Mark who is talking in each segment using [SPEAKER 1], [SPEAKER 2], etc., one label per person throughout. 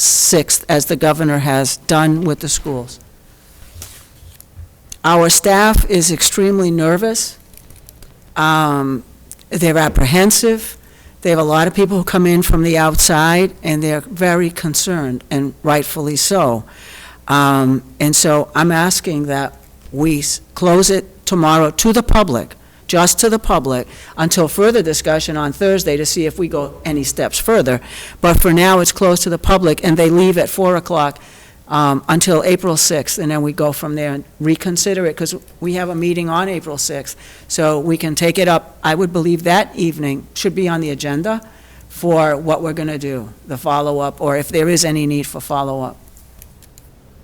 [SPEAKER 1] 6th, as the governor has done with the schools. Our staff is extremely nervous. Um, They're apprehensive. They have a lot of people who come in from the outside, and they're very concerned, and rightfully so. Um, And so I'm asking that we s- close it tomorrow to the public, just to the public, until further discussion on Thursday to see if we go any steps further. But for now, it's closed to the public, and they leave at 4 o'clock um, until April 6th, and then we go from there and reconsider it, because we have a meeting on April 6th. So we can take it up, I would believe that evening should be on the agenda for what we're going to do, the follow-up, or if there is any need for follow-up.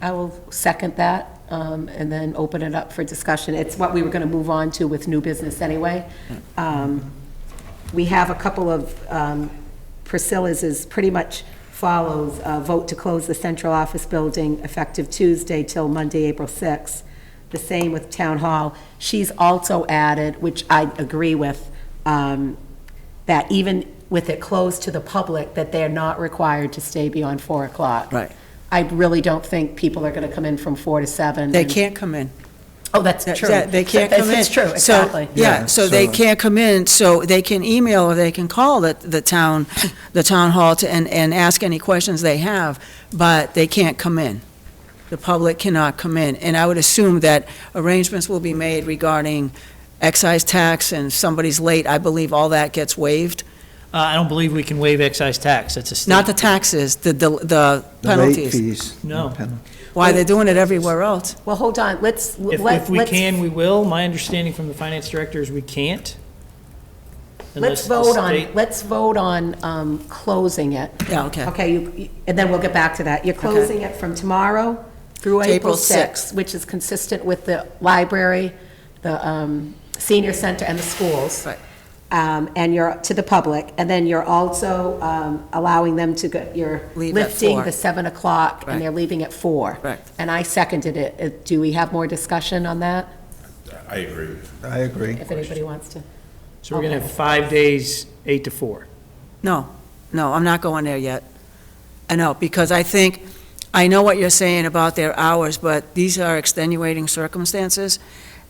[SPEAKER 2] I will second that, um, and then open it up for discussion. It's what we were going to move on to with new business anyway. Um, We have a couple of, um, Priscilla's is pretty much follows, uh, vote to close the central office building effective Tuesday till Monday, April 6th. The same with Town Hall. She's also added, which I agree with, um, that even with it closed to the public, that they're not required to stay beyond 4 o'clock.
[SPEAKER 1] Right.
[SPEAKER 2] I really don't think people are going to come in from four to seven.
[SPEAKER 1] They
[SPEAKER 2] and-
[SPEAKER 1] can't come in.
[SPEAKER 2] Oh, that's
[SPEAKER 1] That-
[SPEAKER 2] true.
[SPEAKER 1] that- They can't
[SPEAKER 2] That's-
[SPEAKER 1] come in.
[SPEAKER 2] It's true,
[SPEAKER 1] So-
[SPEAKER 2] exactly.
[SPEAKER 1] Yeah, so they can't come in, so they can email or they can call the, the town, the town hall to, and, and ask any questions they have, but they can't come in. The public cannot come in. And I would assume that arrangements will be made regarding excise tax and if somebody's late, I believe all that gets waived.
[SPEAKER 3] Uh, I don't believe we can waive excise tax. It's a state.
[SPEAKER 1] Not the taxes, the, the the
[SPEAKER 4] The late
[SPEAKER 1] penalties.
[SPEAKER 4] fees.
[SPEAKER 3] No.
[SPEAKER 4] Pen-
[SPEAKER 1] Why, they're doing it everywhere else.
[SPEAKER 2] Well, hold on, let's,
[SPEAKER 3] If,
[SPEAKER 2] let's,
[SPEAKER 3] if we
[SPEAKER 2] let's-
[SPEAKER 3] can, we will. My understanding from the finance director is we can't.
[SPEAKER 2] let's
[SPEAKER 3] unless the
[SPEAKER 2] vote on,
[SPEAKER 3] state-
[SPEAKER 2] let's vote on um, closing it.
[SPEAKER 1] Yeah, okay.
[SPEAKER 2] Okay, you- you- and then we'll get back to that. You're closing it from tomorrow through
[SPEAKER 1] To April
[SPEAKER 2] April
[SPEAKER 1] 6th.
[SPEAKER 2] 6th, which is consistent with the library, the um, senior center, and the schools.
[SPEAKER 1] Right.
[SPEAKER 2] Um, And you're, to the public, and then you're also um, allowing them to, go. you're
[SPEAKER 1] Leave at
[SPEAKER 2] lifting
[SPEAKER 1] four.
[SPEAKER 2] the 7 o'clock,
[SPEAKER 1] Right.
[SPEAKER 2] and they're leaving at 4.
[SPEAKER 1] Correct.
[SPEAKER 2] And I seconded it. Uh, Do we have more discussion on that,
[SPEAKER 5] I agree.
[SPEAKER 4] I agree.
[SPEAKER 2] if anybody wants to?
[SPEAKER 3] So we're going to have five days, eight to four.
[SPEAKER 1] No, no, I'm not going there yet. I know, because I think, I know what you're saying about their hours, but these are extenuating circumstances.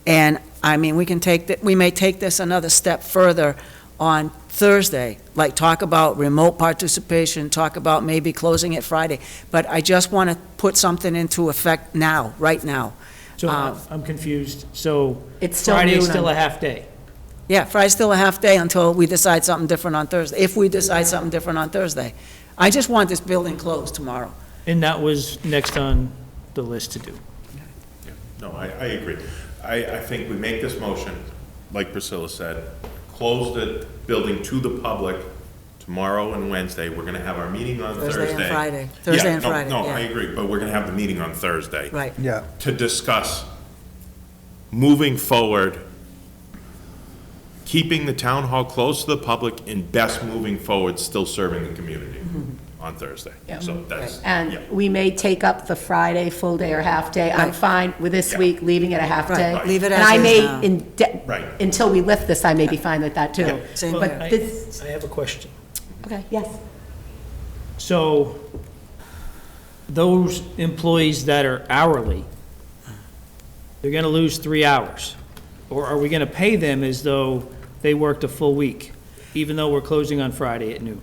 [SPEAKER 1] And, I mean, we can take, th- we may take this another step further on Thursday, like talk about remote participation, talk about maybe closing it Friday. But I just want to put something into effect now, right now.
[SPEAKER 3] So
[SPEAKER 1] Um,
[SPEAKER 3] I'm confused. So
[SPEAKER 2] Uh, It's still noon.
[SPEAKER 3] Friday is still
[SPEAKER 2] on-
[SPEAKER 3] a half day.
[SPEAKER 1] Yeah, Friday's still a half day until we decide something different on Thursday, if we decide something different on Thursday. I just want this building closed tomorrow.
[SPEAKER 3] And that was next on the list to do.
[SPEAKER 5] No, I, I agree. I, I think we make this motion, like Priscilla said, close the building to the public tomorrow and Wednesday. We're gonna have our meeting on Thursday.
[SPEAKER 1] Thursday and Friday. Thursday
[SPEAKER 5] Yeah,
[SPEAKER 1] and
[SPEAKER 5] no,
[SPEAKER 1] Friday,
[SPEAKER 5] No,
[SPEAKER 1] yeah.
[SPEAKER 5] I agree, but we're gonna have the meeting on Thursday.
[SPEAKER 1] Right.
[SPEAKER 4] Yeah,
[SPEAKER 5] To discuss moving forward, keeping the town hall close to the public and best moving forward, still serving the community
[SPEAKER 1] Mm-hmm.
[SPEAKER 5] on Thursday. So that's, yeah.
[SPEAKER 2] And we may take up the Friday full day or half day. I'm fine with this
[SPEAKER 5] Yeah.
[SPEAKER 2] week, leaving it a half
[SPEAKER 1] Right.
[SPEAKER 2] day.
[SPEAKER 1] Right. Leave it as
[SPEAKER 2] And I
[SPEAKER 1] is
[SPEAKER 2] may,
[SPEAKER 1] now.
[SPEAKER 2] in de-
[SPEAKER 5] Right.
[SPEAKER 2] until we lift this, I may be fine with that too.
[SPEAKER 1] Same
[SPEAKER 3] Well,
[SPEAKER 1] here.
[SPEAKER 2] But
[SPEAKER 3] I-
[SPEAKER 2] this,
[SPEAKER 3] I have a question.
[SPEAKER 2] okay, yes.
[SPEAKER 3] So those employees that are hourly, they're going to lose three hours? Or are we going to pay them as though they worked a full week, even though we're closing on Friday at noon?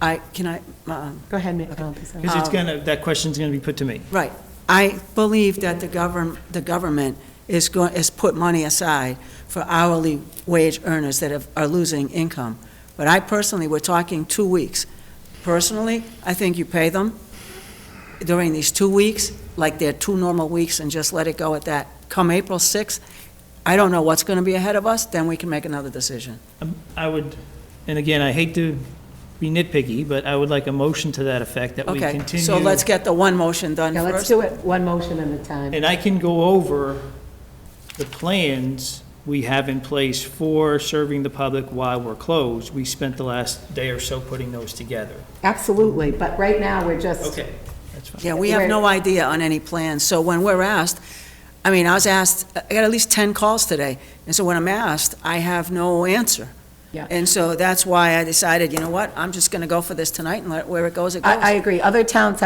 [SPEAKER 1] I, can I, um,
[SPEAKER 2] Go ahead, Ma- um, Priscilla.
[SPEAKER 3] Because it's going to, that question's going to be put to me.
[SPEAKER 1] Right. I believe that the govern, the government is going, is put money aside for hourly wage earners that have, are losing income. But I personally, we're talking two weeks. Personally, I think you pay them during these two weeks, like they're two normal weeks, and just let it go at that. Come April 6th, I don't know what's going to be ahead of us, then we can make another decision.
[SPEAKER 3] Um, I would, and again, I hate to be nitpicky, but I would like a motion to that effect, that we
[SPEAKER 1] Okay,
[SPEAKER 3] continue.
[SPEAKER 1] so let's get the one motion done
[SPEAKER 2] Now,
[SPEAKER 1] first.
[SPEAKER 2] let's do it one motion at a time.
[SPEAKER 3] And I can go over the plans we have in place for serving the public while we're closed. We spent the last day or so putting those together.
[SPEAKER 2] Absolutely, but right now, we're just,
[SPEAKER 3] That's fine.
[SPEAKER 1] Yeah, we have no idea on any plans, so when we're asked, I mean, I was asked, I got at least 10 calls today, and so when I'm asked, I have no answer.
[SPEAKER 2] Yeah.
[SPEAKER 1] And so that's why I decided, you know what, I'm just going to go for this tonight and let, where it goes, it goes.
[SPEAKER 2] I, I agree. Other towns